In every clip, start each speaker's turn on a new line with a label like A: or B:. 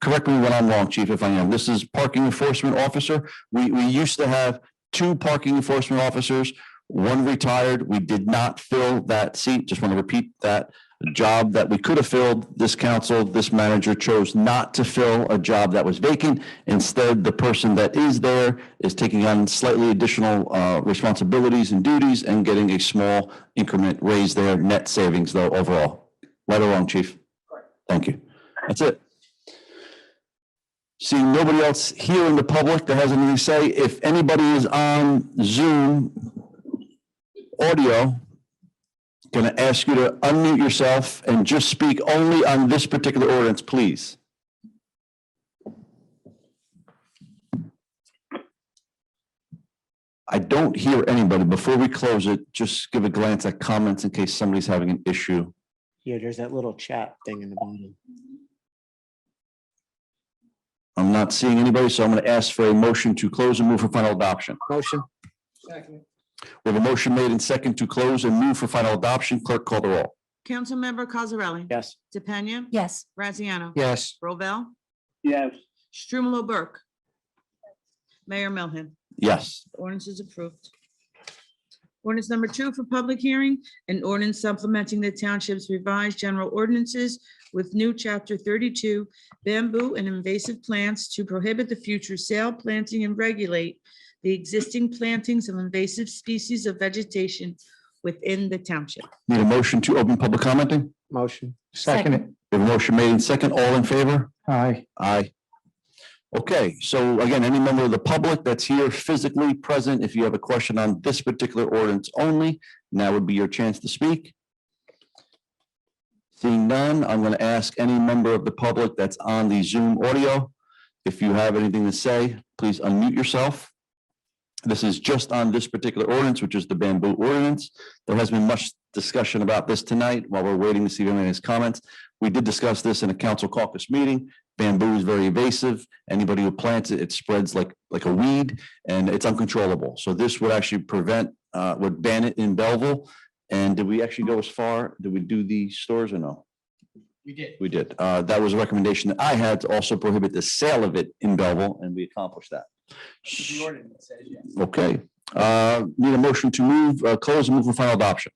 A: correct me when I'm wrong, chief, if I am, this is parking enforcement officer. We, we used to have two parking enforcement officers, one retired. We did not fill that seat. Just want to repeat that job that we could have filled. This council, this manager chose not to fill a job that was vacant. Instead, the person that is there is taking on slightly additional uh, responsibilities and duties and getting a small increment raise there, net savings though overall. Right or wrong, chief? Thank you. That's it. Seeing nobody else here in the public that has anything to say, if anybody is on Zoom audio, going to ask you to unmute yourself and just speak only on this particular ordinance, please. I don't hear anybody. Before we close it, just give a glance at comments in case somebody's having an issue.
B: Yeah, there's that little chat thing in the bottom.
A: I'm not seeing anybody, so I'm going to ask for a motion to close and move for final adoption.
B: Motion,
A: We have a motion made and second to close and move for final adoption. Clerk call the roll.
C: Councilmember Cosarelli?
B: yes.
C: DePena?
D: yes,
C: Graziano?
B: Yes.
C: Rovell?
B: Yes.
C: Strumelob Burke? Mayor Melham?
A: Yes,
C: The Ordinance is approved. Ordinance number two for public hearing, an ordinance supplementing the township's revised general ordinances with new chapter thirty-two bamboo and invasive plants to prohibit the future sale, planting, and regulate the existing plantings of invasive species of vegetation within the township.
A: need a motion to open public commenting?
B: Motion.
D: Second it.
A: We have a motion made and second. All in favor?
B: Aye.
A: Aye. Okay, so again, any member of the public that's here physically present, if you have a question on this particular ordinance only, now would be your chance to speak. Seeing none, I'm going to ask any member of the public that's on the Zoom audio. If you have anything to say, please unmute yourself. This is just on this particular ordinance, which is the bamboo ordinance. There has been much discussion about this tonight while we're waiting to see anybody's comments. We did discuss this in a council caucus meeting bamboo is very invasive. Anybody who plants it, it spreads like, like a weed and it's uncontrollable. So this would actually prevent, uh, would ban it in Belleville. And did we actually go as far? Did we do the stores or no? We did. We did. Uh, that was a recommendation that I had to also prohibit the sale of it in Belleville and we accomplished that. Okay, uh, need a motion to move, uh, close and move for final adoption.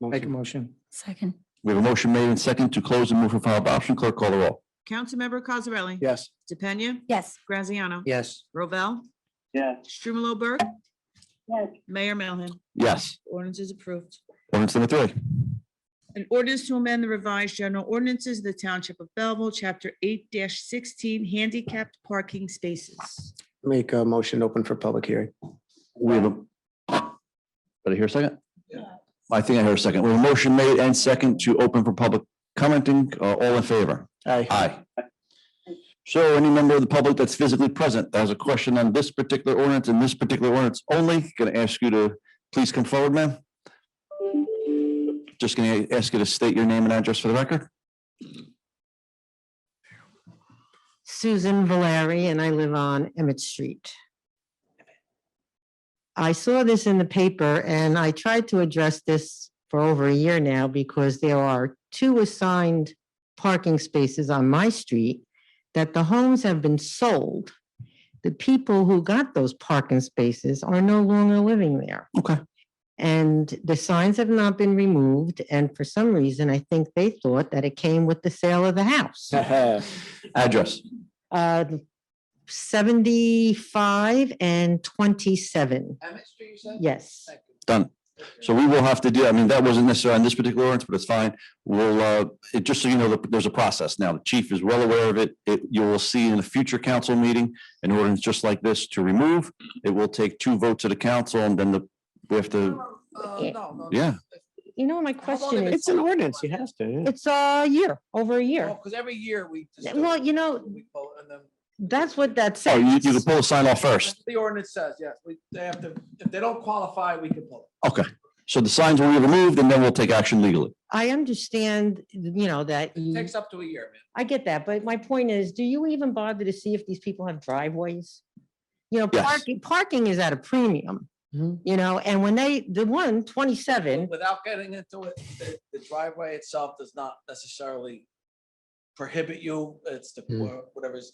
B: Make a motion.
D: second,
A: We have a motion made and second to close and move for final adoption. Clerk call the roll.
C: Councilmember Cosarelli?
B: Yes.
C: DePena?
D: yes,
C: Graziano?
B: Yes.
C: Rovell?
B: Yeah.
C: Strumelob Burke? Mayor Melham?
A: Yes,
C: Ordinance is approved.
A: ordinance number three.
C: An ordinance to amend the revised general ordinances of the Township of Belleville, Chapter eight sixteen, handicapped parking spaces.
B: Make a motion open for public hearing.
A: We have a. Did I hear a second? I think I heard a second. We have a motion made and second to open for public commenting. Uh, All in favor?
B: Aye.
A: Aye. So any member of the public that's physically present that has a question on this particular ordinance and this particular ordinance only, going to ask you to please come forward, ma'am. Just going to ask you to state your name and address for the record.
E: Susan Valeri, and I live on Emmett Street. I saw this in the paper and I tried to address this for over a year now because there are two assigned parking spaces on my street that the homes have been sold. The people who got those parking spaces are no longer living there.
A: Okay.
E: And the signs have not been removed. And for some reason, I think they thought that it came with the sale of the house.
A: Address.
E: Uh, 75 and 27. Yes.
A: Done. So we will have to do, I mean, that wasn't necessarily on this particular ordinance, but it's fine. We'll, uh, it, just so you know, that there's a process now. The chief is well aware of it. It, you will see in a future council meeting, an ordinance just like this to remove. It will take two votes of the council and then the, we have to,
F: uh,
A: yeah,
E: You know, my question is,
B: It's an ordinance. You have to.
E: it's a year, over a year.
F: Because Oh, every year we. just
E: Yeah,
F: do
E: well,
F: it.
E: you know-
F: We pull- and then-
E: That's what that
A: oh, you, you can
E: says.
A: pull a sign off first.
F: The ordinance says, yes, we, they have to, if they don't qualify, we can pull
A: So the signs will be removed and then we'll take action legally.
E: I understand, you know, that
F: it. It
E: you,
F: takes up to a year, man.
E: I get that, but my point is, do you even bother to see if these people have driveways? You know,
A: Yes.
E: parking, parking is at a premium,
B: Mhm.
E: you know, and when they, the one,
F: But
E: 27,
F: Without getting into it, the- the driveway itself does not necessarily prohibit you, it's the,
B: Hmm.
F: whatever's